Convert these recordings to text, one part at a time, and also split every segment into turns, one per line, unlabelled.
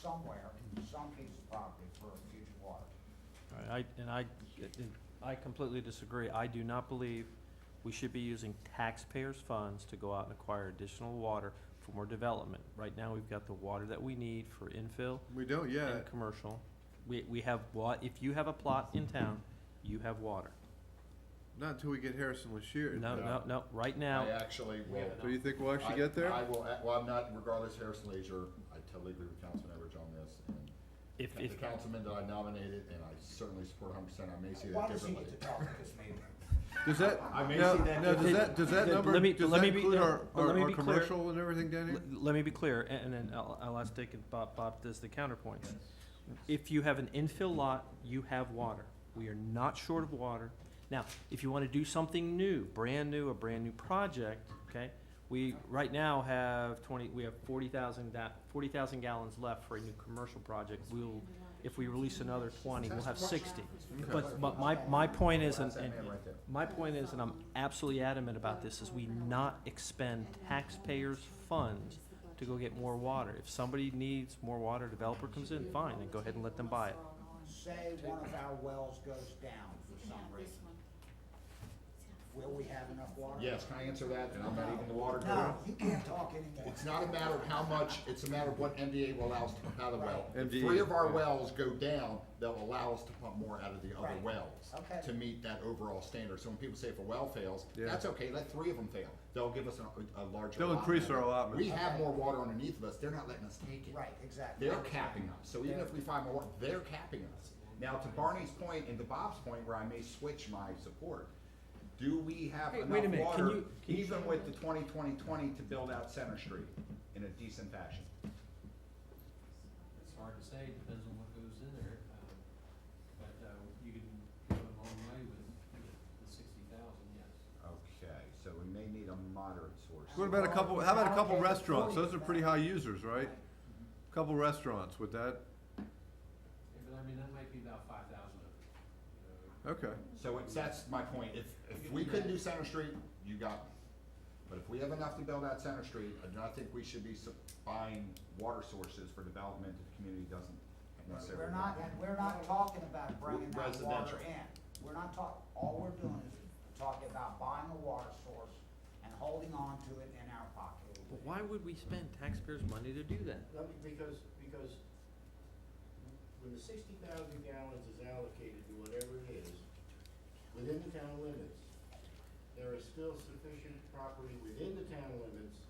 somewhere, some piece of property for future water.
All right, I, and I, and I completely disagree. I do not believe we should be using taxpayers' funds to go out and acquire additional water for more development. Right now, we've got the water that we need for infill
We don't
and
yet.
commercial. We, we have wa, if you have a plot in town, you have water.
Not until we get Harrison Lashier.
No,
No.
no, no, right
I
now,
actually
We
will.
have
Do you think we'll actually
I-
get there?
I will, a- well, I'm not, regardless, Harrison Leisure, I totally agree with Councilman Everidge on this, and
if, if,
the councilman that I nominated, and I certainly support hundred percent, I may see
Why
that
does he
differently.
get to talk at this meeting?
Does that,
I may
now,
see that
now, does
differently.
that, does that
Let
number,
me-
does
let
that
me be-
include our,
let
our
me
our
be clear.
commercial and everything down
L-
here?
Let me be clear, a- and then I'll, I'll ask Dick and Bob, Bob does the counterpoint. If you have an infill lot, you have water. We are not short of water. Now, if you wanna do something new, brand new, a brand new project, okay? We, right now, have twenty, we have forty thousand da- forty thousand gallons left for a new commercial project. We'll, if we release another twenty, we'll have sixty. But my, my, my point is, and,
That's that
and,
man right there.
my point is, and I'm absolutely adamant about this, is we not expend taxpayers' funds to go get more water. If somebody needs more water, developer comes in, fine, then go ahead and let them buy it.
Say one of our wells goes down for some reason, will we have enough water?
Yes, can I answer that, and I'm not even the water guru.
No, you can't talk anymore.
It's not a matter of how much, it's a matter of what MDA will allow us to pump out of the well. If
MDA,
three of our
yeah.
wells go down, they'll allow us to pump more out of the other
Right.
wells
Okay.
to meet that overall standard. So when people say if a well fails,
Yeah.
that's okay, let three of them fail. They'll give us a, a larger.
They'll increase our allotment.
We have
Okay.
more water underneath of us, they're not letting us take it.
Right, exactly.
They're capping us, so even if we find more, they're capping us. Now, to Barney's point and to Bob's point, where I may switch my support, do we have
Hey, wait a minute,
enough
can
water,
you- can you-
even with the twenty, twenty, twenty, to build out Center Street in a decent fashion?
It's hard to say, depends on what goes in there, um, but, uh, you can go a long way with, with the sixty thousand, yes.
Okay, so we may need a moderate source.
What about a couple, how about a couple
Okay.
restaurants? Those are pretty high users, right? Couple restaurants, would that,
Yeah, But I mean, that might be about five thousand of it, you know,
okay.
So it's, that's my point, if, if we couldn't do Center Street, you got me. But if we have enough to build out Center Street, I do not think we should be sup- buying water sources for development that the community doesn't necessarily.
We're not, and we're not talking about bringing that water
Residential.
in. We're not talking, all we're doing is talking about buying a water source and holding on to it in our pocket.
But why would we spend taxpayers' money to do that?
Let me, because, because when the sixty thousand gallons is allocated to whatever it is, within the town limits, there is still sufficient property within the town limits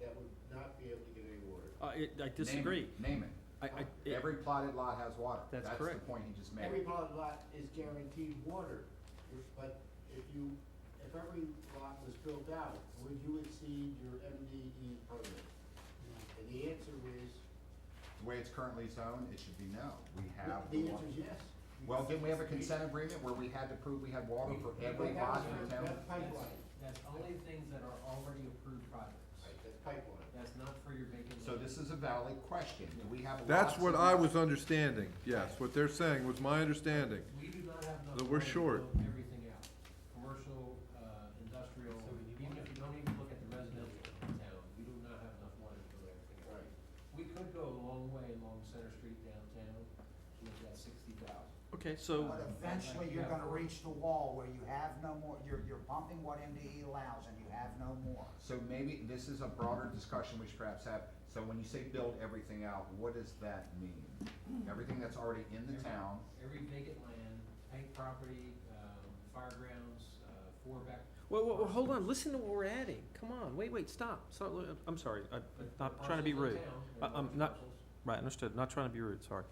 that would not be able to get any water.
Uh, it, I
Name it,
disagree.
Name
I, I,
it.
it-
Every plotted lot has water.
That's
That's
correct.
the point he just made.
Every plot lot is guaranteed water, but if you, if every lot was built out, would you exceed your MDE permit? And the answer is,
The way it's currently zoned, it should be no. We have.
the
water.
answer is yes.
Well, didn't we have a consent agreement where we had to prove we had water for every
But that
lot in
was for-
the town?
That's pipeline.
That's only things that are already approved projects.
Right, that's pipeline.
That's not for your vacant
So
land.
this is a valid question. Do we have lots?
That's what
of-
I was understanding, yes, what they're saying was my understanding.
We do not have enough.
But we're
room to
short.
build Everything out, commercial, uh, industrial, even if you don't even look at the residential in town, we do not have enough water to build everything out.
Right.
We could go a long way along Center Street downtown with that sixty thousand.
okay, so,
But eventually, you're gonna reach the wall where you have no more, you're, you're pumping what MDE allows and you have no more.
So maybe this is a broader discussion we should perhaps have. So when you say build everything out, what does that mean? Everything that's already in the town,
Every vacant land, bank property, um, firegrounds, uh, four back.
wait, wait, wait, hold on, listen to what we're adding. Come on, wait, wait, stop. Stop, I'm sorry, I, I'm not trying to be rude. I- I'm not- Right, understood. Not trying to be rude, sorry.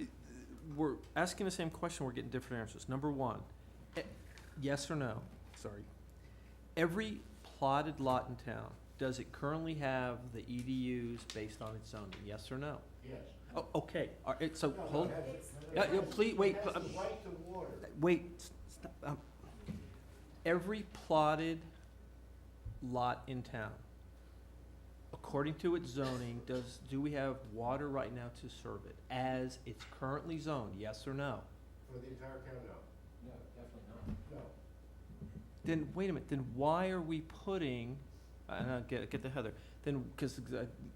I- We're asking the same question, we're getting different answers. Number one, e- yes or no, sorry. Every plotted lot in town, does it currently have the EDUs based on its zoning, yes or no?
Yes.
Oh, okay, all right, so,
No, no,
hold,
it has-
Yeah,
it
yeah,
has-
please, wait, uh,
It has
pl-
the right to water.
wait, s- stop, um, every plotted lot in town, according to its zoning, does, do we have water right now to serve it as it's currently zoned, yes or no?
For the entire county, no,
No, definitely not.
no.
Then, wait a minute, then why are we putting, and I'll get, get to Heather, then, cause uh,